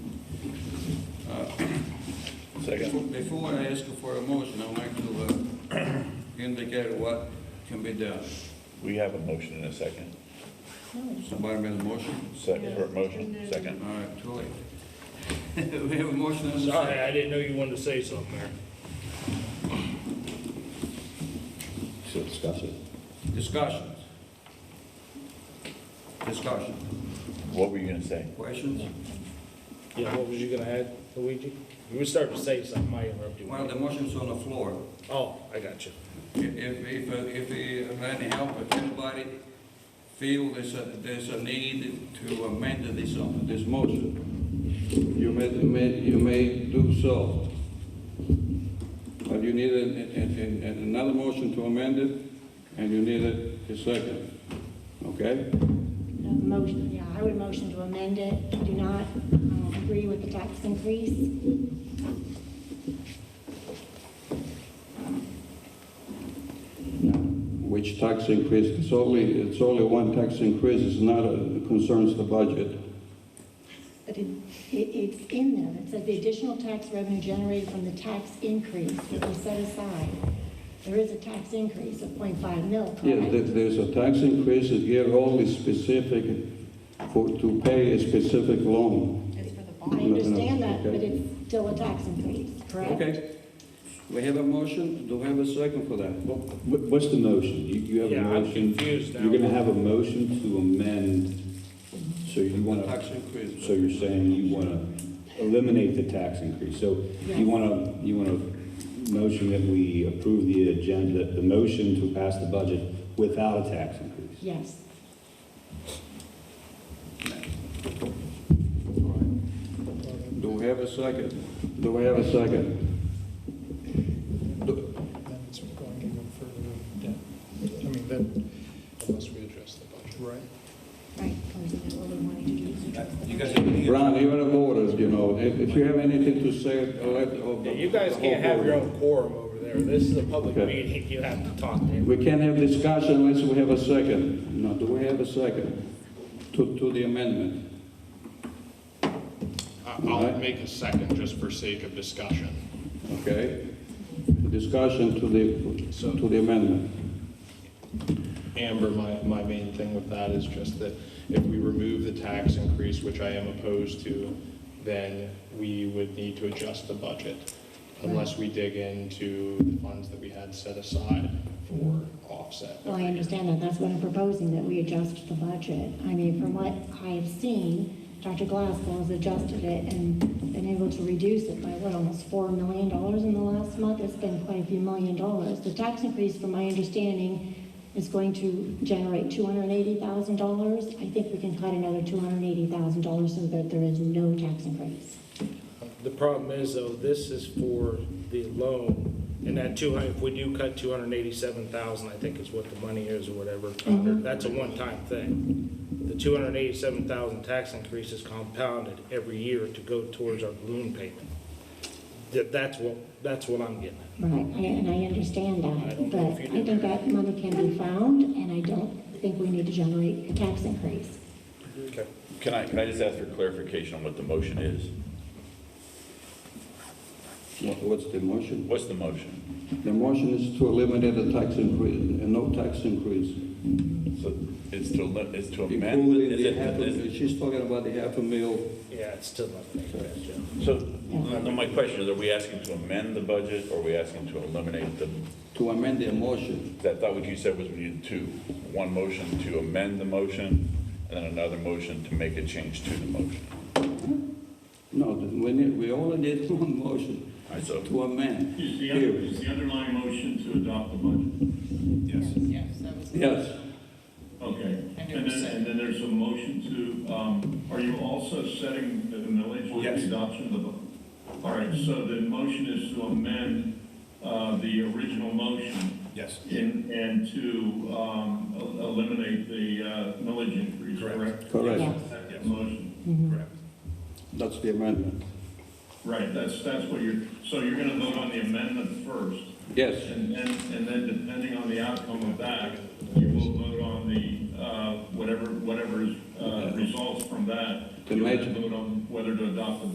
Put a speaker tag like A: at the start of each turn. A: Second.
B: Before I ask for a motion, I'd like to uh, indicate what can be done.
A: We have a motion and a second.
B: Somebody made a motion?
A: Second, or motion,
B: All
A: second.
B: right, too late. We have a motion and a second.
C: Sorry, I didn't know you wanted to say something there.
D: Should discuss it.
B: Discussions. Discussion.
A: What were you gonna say?
B: Questions?
C: Yeah, what was you gonna add, Luigi? You were starting to say something, I interrupted
B: Well,
C: you.
B: the motion's on the floor.
C: Oh, I got you.
B: If, if, uh, if, if any help, if anybody feel there's a, there's a need to amend this, uh, this motion, you may, you may, you may do so. But you need an, an- an- an- another motion to amend it, and you need a, a second, okay?
E: Uh, Motion, yeah, I would motion to amend it. I do not um, agree with the tax increase.
F: which tax increase, it's only, it's only one tax increase, it's not, a- it concerns the budget.
E: But it, it- it's in there. It says the additional tax revenue generated from the tax increase that we set aside. There is a tax increase of 0.5 mil,
F: Yes, there-
E: correct?
F: there's a tax increase here only specific for, to pay a specific loan.
G: It's for the
E: I
G: bond.
E: understand that, but
F: Okay.
E: it's still a tax increase, correct?
B: Okay. We have a motion, do we have a second for that?
D: What- What's the motion? You, you have a
C: Yeah, I'm
D: motion?
C: confused now.
D: You're gonna have a motion to amend, so you wanna,
B: Tax increase.
D: so you're saying you wanna eliminate the tax increase. So you
E: Yes.
D: wanna, you wanna motion that we approve the agenda, the motion to pass the budget without a tax increase?
E: Yes.
B: Do we have a second?
F: Do I have a second?
H: amendments are going even further down. I mean, that, unless we address the budget. Right.
E: Right, or is that what we wanted to do?
B: You guys have any-
F: Ron, you're in orders, you know, if, if you have anything to say, let. or-
C: Yeah, You guys can't have your own quorum over there. This is a public
F: Okay.
C: meeting. You have to talk to him.
F: We can't have discussion unless we have a second. No, do we have a second to, to the amendment?
I: I- I'll make a second just for sake of discussion.
F: Okay? Discussion to the, to the amendment.
I: Amber, my, my main thing with that is just that if we remove the tax increase, which I am opposed to, then we would need to adjust the budget unless we dig into the funds that we had set aside for offset.
E: Well, I understand that, that's what I'm proposing, that we adjust the budget. I mean, from what I have seen, Dr. Glasgow has adjusted it and been able to reduce it by, what, almost four million dollars in the last month? It's been quite a few million dollars. The tax increase, from my understanding, is going to generate two hundred and eighty thousand dollars. I think we can cut another two hundred and eighty thousand dollars so that there is no tax increase.
C: The problem is though, this is for the loan and that two hundred, if we do cut two hundred and eighty-seven thousand, I think is what the money is or whatever. That's a one-time thing. The two hundred and eighty-seven thousand tax increase is compounded every year to go towards our balloon payment. That, that's what, that's what I'm getting at.
E: Right, I- and I understand that, but I think that money can be found, and I don't think we need to generate a tax increase.
C: Okay.
A: Can I, can I just ask for clarification on what the motion is?
F: What- What's the motion?
A: What's the motion?
F: The motion is to eliminate the tax increase, a no tax increase.
A: So it's to, li- it's to amend,
F: Including
A: is
F: the
A: it,
F: half a,
A: is,
F: mil- she's talking about the half a mil.
C: Yeah, it's still not making that jump.
A: so, no, my question is, are we asking to amend the budget, or are we asking to eliminate the,
F: To amend their motion,
A: I thought what you said was we needed two. One motion to amend the motion, and then another motion to make a change to the motion.
F: no, we need, we only need one motion
A: All right, so,
F: to amend.
J: Is the,
F: Here.
J: is the underlying motion to adopt the budget?
A: yes.
G: Yes, that was.
F: Yes,
J: Okay.
G: And
J: And
G: it
J: then,
G: was
J: and then there's a motion to, um, are you also setting the millage with
A: Yes.
J: the adoption of the? bu- All right, so the motion is to amend, uh, the original motion
A: Yes.
J: in, and to, um, el- eliminate the, uh, millage increase, correct?
F: correct.
J: That's the motion.
A: Correct.
F: That's the amendment.
J: Right, that's, that's what you're, so you're gonna vote on the amendment first.
F: Yes,
J: And then, and then depending on the outcome of that, you will vote on the, uh, whatever, whatever uh, results from that.
F: The
J: You'll
F: major-
J: then vote on whether to adopt the